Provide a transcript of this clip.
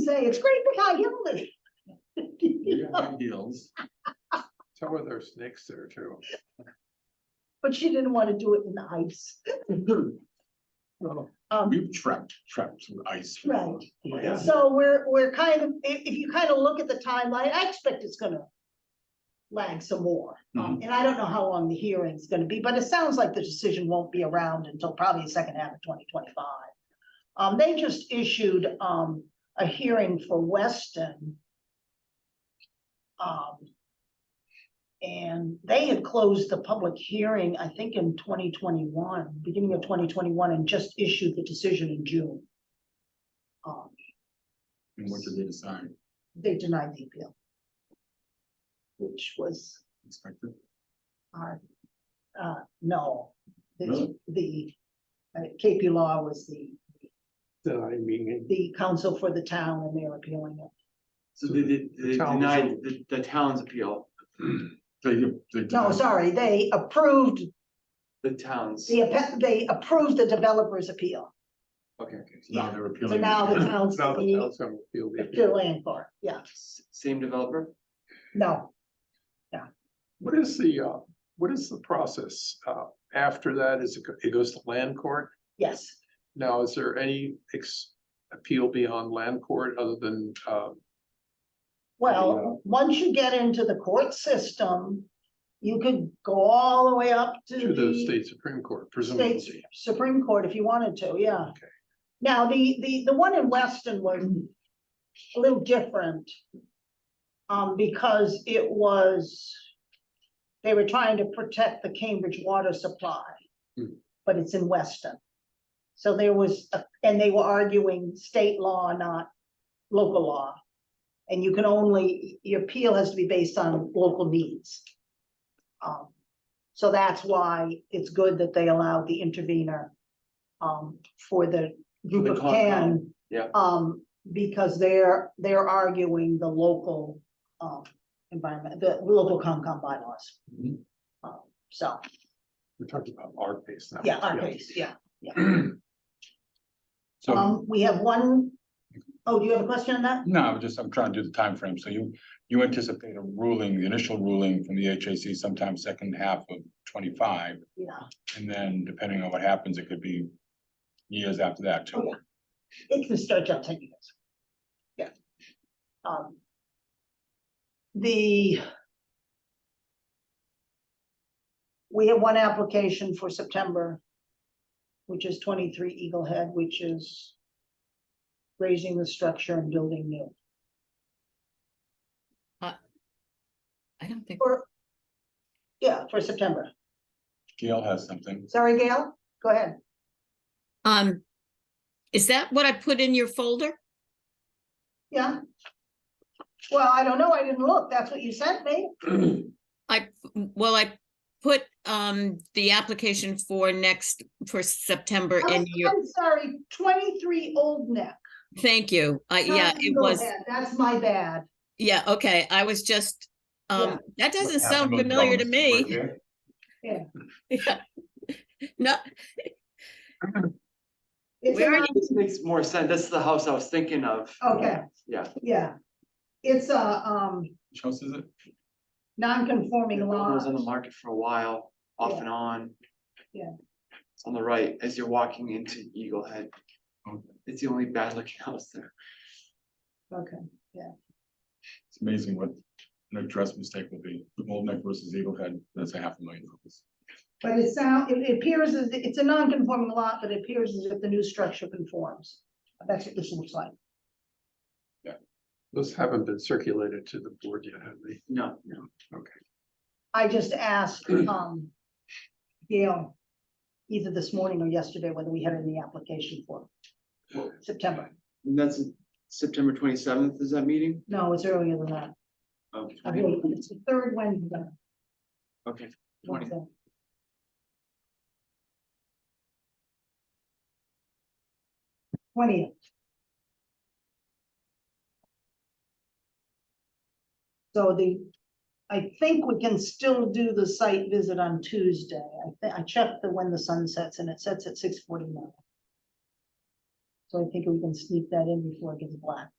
say, it's great for high heels. You got high heels. Tell her there's snakes there too. But she didn't want to do it in the ice. Um, We've trapped, trapped some ice. before. Right. Yeah. So we're, we're kind of, if, if you kind of look at the timeline, I expect it's gonna lag some more. Um, and I don't know how long the hearing's gonna be, but it sounds like the decision won't be around until probably the second half of twenty twenty-five. Um, they just issued, um, a hearing for Weston. Um, and they had closed the public hearing, I think in twenty twenty-one, beginning of twenty twenty-one, and just issued the decision in June. Um, And what did they decide? they denied the appeal. Which was Expected? our, uh, no, the, Really? the, uh, KP Law was the, denying meaning. the counsel for the town and they're appealing it. So they did, they Town's- denied the, the town's appeal, They, they. No, sorry, they approved, the town's, the, appe- they approved the developer's appeal. okay, okay. So Now they're So appealing. now the town's Now the the, town's gonna feel the the appeal. land court, yeah, S- Same developer? no. What is the, uh, what is the process, uh, after that? Is it, go- it goes to land court? Yes, Now, is there any ex- appeal beyond land court other than, uh, well, once you get into the court system, you could go all the way up to uh, to the the- state supreme court States presumably? Supreme Court if you wanted to, yeah. Okay. Now, the, the, the one in Weston was a little different. Um, because it was, they were trying to protect the Cambridge water supply. Hmm. But it's in Weston. So there was, a- and they were arguing state law, not local law. And you can only, your appeal has to be based on local needs. Um, so that's why it's good that they allowed the intervener um, for the group the of Concom, ten. yeah. Um, because they're, they're arguing the local, um, environment, the local Concom bylaws. Mhm. Um, So, We're talking about our case now. yeah, our case, yeah. So, Um, we have one, oh, do you have a question on that? no, I'm just, I'm trying to do the time frame. So you, you anticipate a ruling, the initial ruling from the HAC sometime second half of twenty-five. Yeah. And then depending on what happens, it could be years after that Oh, too. yeah. It can stretch out ten years. Yeah. Um. The. We have one application for September. Which is twenty-three Eagle Head, which is. Raising the structure and building new, I don't think, or. Yeah, for September. Gail has something. Sorry, Gail, go ahead. um, is that what I put in your folder? Yeah. Well, I don't know. I didn't look. That's what you sent me. I, well, I put, um, the application for next, for September I'm in your, I'm sorry, twenty-three Old Neck. thank you. I, yeah, Sorry, it go was, ahead. That's my bad. yeah, okay, I was just, um, that doesn't sound Capital familiar to developments me. right there. Yeah. No, It's Oh, Where in are This makes more sense, that's the house I was thinking of. our- Okay, Yeah, yeah. It's a, um, Which house is it? non-conforming it was on the lot. market for a while, off Yeah. and on. Yeah. It's on the right, as you're walking into Eagle Head. It's the only bad looking house there. Okay, It's amazing what an address mistake will be. Old Neck versus Eagle Head, that's a half a million dollars. but it sound, it- it appears as, it's a non-conforming lot, but it appears as if the new structure conforms. That's what this looks like. Those haven't been circulated to the board yet, have they? No, no, I just asked, um, Gail, either this morning or yesterday, whether we had any application for September. and that's September twenty seventh is that meeting? No, it's earlier than that. Oh, I 20? believe it's the third Wednesday. Okay, twenty, Wednesday. Twentieth. So the, I think we can still do the site visit on Tuesday. I think, I checked the when the sun sets and it sets at six forty-nine. So I think we can sneak that in before it gets black.